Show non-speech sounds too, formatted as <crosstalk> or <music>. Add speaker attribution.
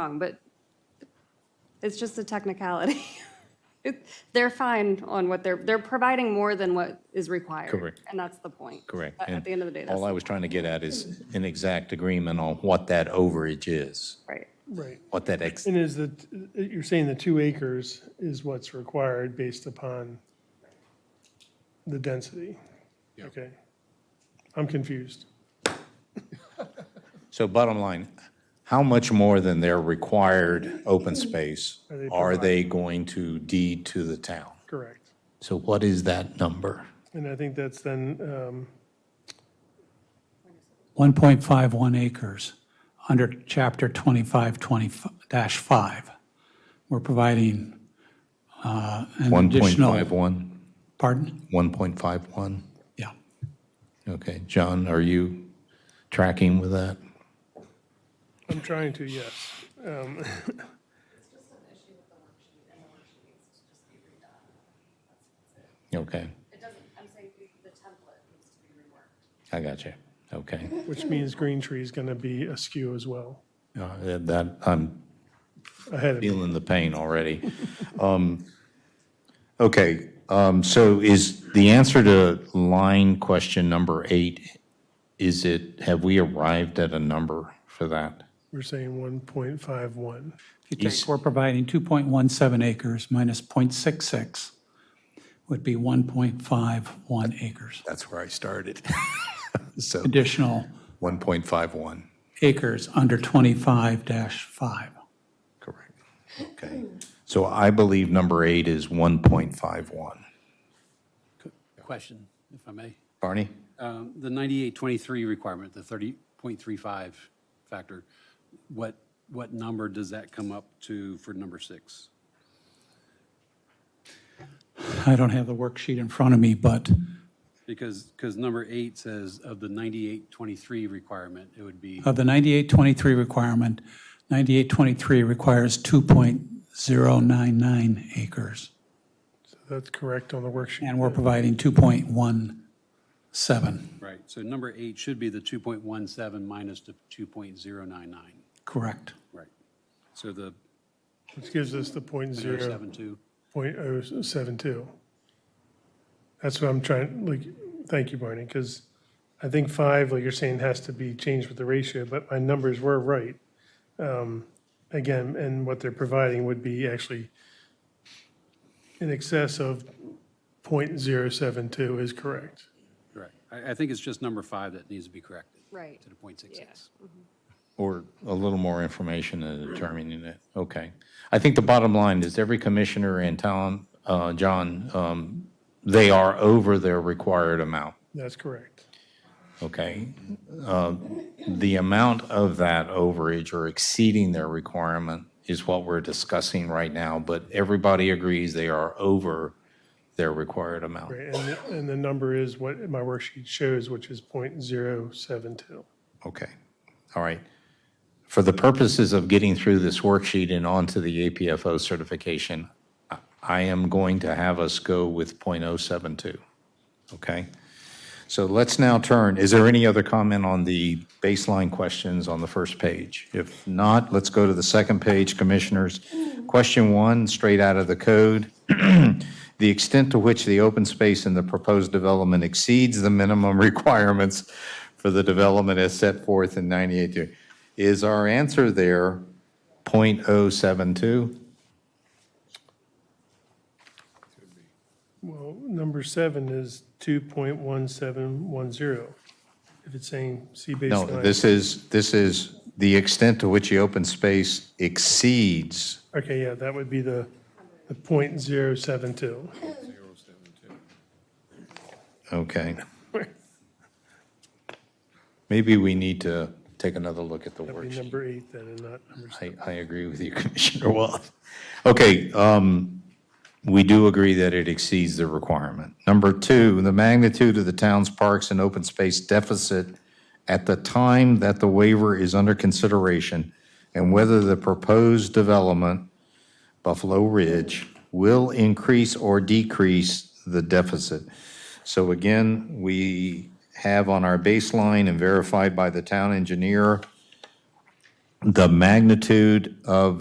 Speaker 1: wrong, but it's just a technicality. <laughs> It- They're fine on what they're, they're providing more than what is required.
Speaker 2: Correct.
Speaker 1: And that's the point.
Speaker 2: Correct.
Speaker 1: At- At
Speaker 2: And
Speaker 1: the end of the day, that's
Speaker 2: All I was trying to get at is an exact agreement on what that overage is,
Speaker 1: right.
Speaker 3: Right.
Speaker 2: what that ex,
Speaker 3: And is the, you're saying the two acres is what's required based upon the density? Okay. I'm confused.
Speaker 2: so bottom line, how much more than their required open space
Speaker 3: Are they
Speaker 2: are they going to deed to the town?
Speaker 3: Correct.
Speaker 2: So what is that number?
Speaker 3: And I think that's then, um,
Speaker 4: 1.51 acres under Chapter 25-5. We're providing uh, an additional,
Speaker 2: 1.51?
Speaker 4: pardon?
Speaker 2: 1.51?
Speaker 4: Yeah.
Speaker 2: Okay, John, are you tracking with that?
Speaker 3: I'm trying to, yes. Um,
Speaker 2: Okay,
Speaker 1: It doesn't, I'm saying the template needs to be reworked.
Speaker 2: I got you. Okay.
Speaker 3: Which means Green Tree is going to be askew as well,
Speaker 2: Uh, That, I'm
Speaker 3: ahead of,
Speaker 2: feeling the pain already. <laughs> Um, Okay, um, so is the answer to line question number eight, is it, have we arrived at a number for that?
Speaker 3: we're saying 1.51.
Speaker 4: If you
Speaker 2: Yes.
Speaker 4: take, we're providing 2.17 acres minus .66 would be 1.51 acres.
Speaker 2: That's where I started. <laughs> So
Speaker 4: Additional
Speaker 2: 1.51,
Speaker 4: acres under 25-5.
Speaker 2: correct. Okay, so I believe number eight is 1.51.
Speaker 5: Question, if I may.
Speaker 2: Barney?
Speaker 5: Um, The 9823 requirement, the 30.35 factor, what, what number does that come up to for number six?
Speaker 4: I don't have the worksheet in front of me, but
Speaker 5: Because, because number eight says of the 9823 requirement, it would be,
Speaker 4: Of the 9823 requirement, 9823 requires 2.099 acres,
Speaker 3: So That's correct on the worksheet.
Speaker 4: and we're providing 2.17.
Speaker 5: right, so number eight should be the 2.17 minus the 2.099,
Speaker 4: Correct.
Speaker 5: right? So the
Speaker 3: Which gives us the point zero.
Speaker 5: 0.72,
Speaker 3: Point oh seven two. That's what I'm trying, like, thank you, Barney, because I think five, like you're saying, has to be changed with the ratio, but my numbers were right. Um, Again, and what they're providing would be actually in excess of point zero seven two is correct.
Speaker 5: right. I, I think it's just number five that needs to be corrected
Speaker 1: Right.
Speaker 5: to the .66.
Speaker 2: Or a little more information in determining it. Okay. I think the bottom line is every commissioner in town, uh, John, um, they are over their required amount,
Speaker 3: That's correct.
Speaker 2: okay? Uh, The amount of that overage or exceeding their requirement is what we're discussing right now, but everybody agrees they are over their required amount.
Speaker 3: Right, and, the- and the number is what my worksheet shows, which is point zero seven two.
Speaker 2: Okay, all right. For the purposes of getting through this worksheet and onto the APFO certification, I- I am going to have us go with .072, okay? So let's now turn, is there any other comment on the baseline questions on the first page? If not, let's go to the second page, Commissioners. Question one, straight out of the code. The extent to which the open space in the proposed development exceeds the minimum <laughs> requirements for the development as set forth in 98. Is our answer there .072?
Speaker 3: Well, number seven is two point one seven one zero. If it's saying C
Speaker 2: No,
Speaker 3: baseline.
Speaker 2: this is, this is the extent to which the open space exceeds
Speaker 3: Okay, yeah, that would be the, the point zero seven two. <laughs>
Speaker 2: Okay. Maybe we need to take another look at the
Speaker 3: That'd be
Speaker 2: worksheet.
Speaker 3: number eight then and not number seven.
Speaker 2: I, I agree with you, <laughs> Commissioner Wallace. Okay, um, we do agree that it exceeds the requirement. Number two, the magnitude of the town's parks and open space deficit at the time that the waiver is under consideration and whether the proposed development, Buffalo Ridge, will increase or decrease the deficit. So again, we have on our baseline and verified by the town engineer the magnitude of